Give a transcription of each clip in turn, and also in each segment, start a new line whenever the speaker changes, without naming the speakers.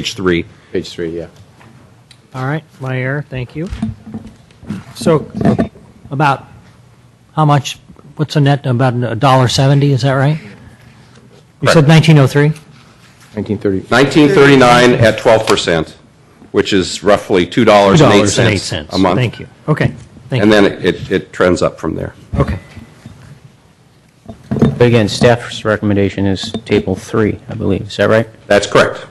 page three.
Page three, yeah.
All right, my error, thank you. So about how much, what's the net, about a dollar seventy, is that right? You said
Correct.
nineteen oh three?
1930,
1939 at 12%, which is roughly $2.08 a month.
Thank you. Okay, thank
And
you.
then it- it, it trends up from there.
Okay.
But again, staff's recommendation is table three, I believe, is that right?
That's correct.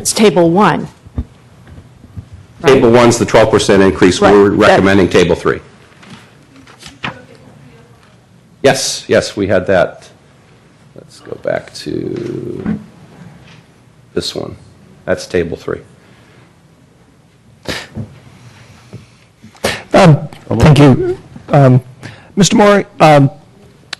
It's Table 1. right?
Table one's the 12% increase.
Right,
We're
that-
recommending table three. Yes, yes, we had that. Let's go back to this one. That's table three.
Thank you. Um, Mr. Moore, um,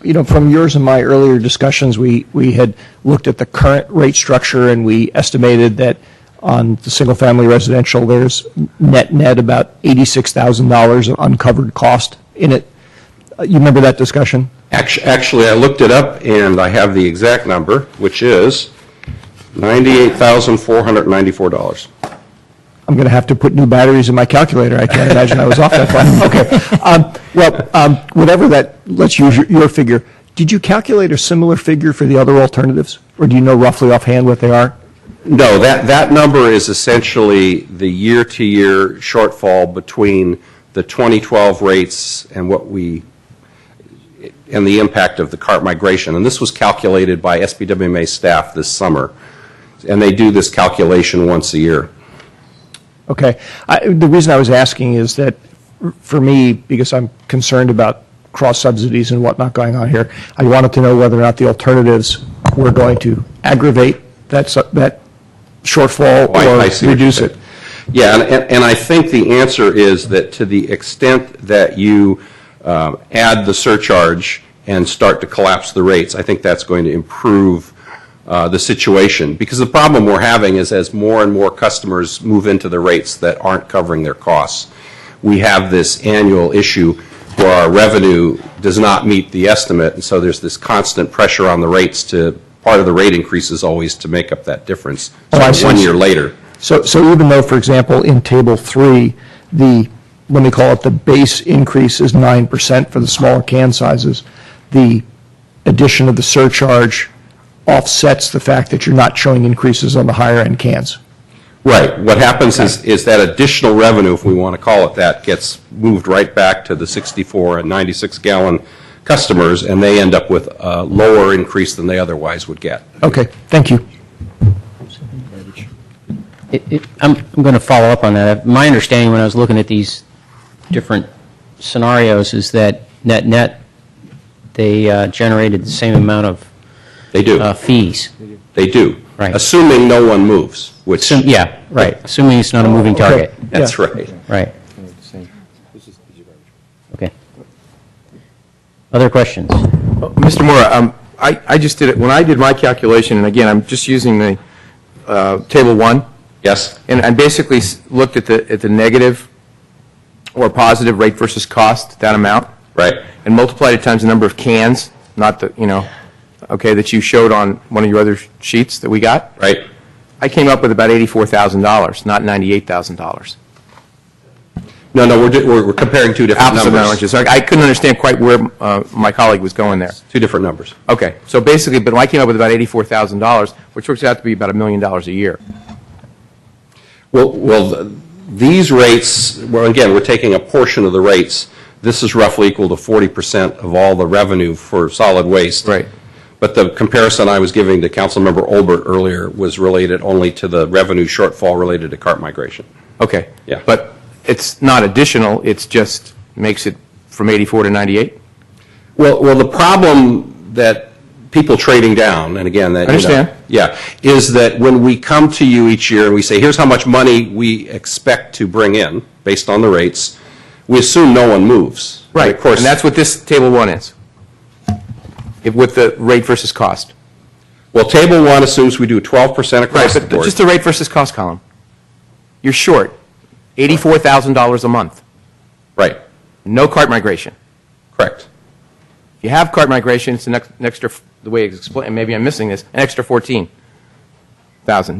you know, from yours and my earlier discussions, we, we had looked at the current rate structure, and we estimated that on the single-family residential, there's net-net about $86,000 of uncovered cost in it. Uh, You remember that discussion?
Actu- Actually, I looked it up, and I have the exact number, which is $98,494.
I'm going to have to put new batteries in my calculator. I can't imagine I was off that far. Okay. Um, Well, um, whatever that, let's use your- your figure. Did you calculate a similar figure for the other alternatives? Or do you know roughly offhand what they are?
No, that, that number is essentially the year-to-year shortfall between the 2012 rates and what we, and the impact of the cart migration. And this was calculated by SBWMA staff this summer, and they do this calculation once a year.
Okay. I, the reason I was asking is that f- for me, because I'm concerned about cross subsidies and whatnot going on here, I wanted to know whether or not the alternatives were going to aggravate that, su- that shortfall
Oh, I- I see
or
what you're
reduce
saying.
it.
Yeah, and- and, and I think the answer is that to the extent that you um, add the surcharge and start to collapse the rates, I think that's going to improve uh, the situation. Because the problem we're having is as more and more customers move into the rates that aren't covering their costs, we have this annual issue where our revenue does not meet the estimate, and so there's this constant pressure on the rates to, part of the rate increase is always to make up that difference.
Oh, I
So
see.
One year later.
So, so even though, for example, in Table 3, the, let me call it, the base increase is 9% for the smaller can sizes, the addition of the surcharge offsets the fact that you're not showing increases on the higher-end cans.
Right. What happens is, is that additional revenue, if we want to call it that, gets moved right back to the 64 and 96 gallon customers, and they end up with a lower increase than they otherwise would get.
Okay, thank you.
It- it- I'm going to follow up on that. My understanding when I was looking at these different scenarios is that net-net, they uh, generated the same amount of
They do.
uh, fees.
They do.
Right.
Assuming no one moves, which.
Assume- Yeah, right, assuming it's not a moving target.
That's
Yeah.
right.
Right,
same.
okay. Other questions?
Mr. Moore, um, I I just did it, when I did my calculation, and again, I'm just using the uh, Table 1,
Yes?
and I basically s- looked at the, at the negative or positive rate versus cost, that amount.
Right.
And multiplied it times the number of cans, not the, you know, okay, that you showed on one of your other sheets that we got.
Right?
I came up with about $84,000, not $98,000.
No, no, we're, di- we're we're comparing two different
Apples and
numbers.
oranges. I I couldn't understand quite where uh, my colleague was going there.
Two different numbers.
Okay, so basically, but I came up with about $84,000, which works out to be about a million dollars a year.
Well, well, th- these rates, well, again, we're taking a portion of the rates. This is roughly equal to 40% of all the revenue for solid waste.
Right.
But the comparison I was giving to Councilmember Olbert earlier was related only to the revenue shortfall related to cart migration.
Okay.
Yeah.
But it's not additional, it's just makes it from 84 to 98?
Well, well, the problem that people trading down, and again, that, you know-
Understand.
Yeah, is that when we come to you each year and we say, here's how much money we expect to bring in based on the rates, we assume no one moves. And Of course.
And that's what this Table 1 is, If- with the rate versus cost.
Well, table one assumes we do 12% across the
But
board.
just the rate versus cost column. You're short $84,000 a month,
Right,
no cart migration.
correct.
If you have cart migration, it's an ex- an extra, the way it's explained, maybe I'm missing this, an extra 14. thousand.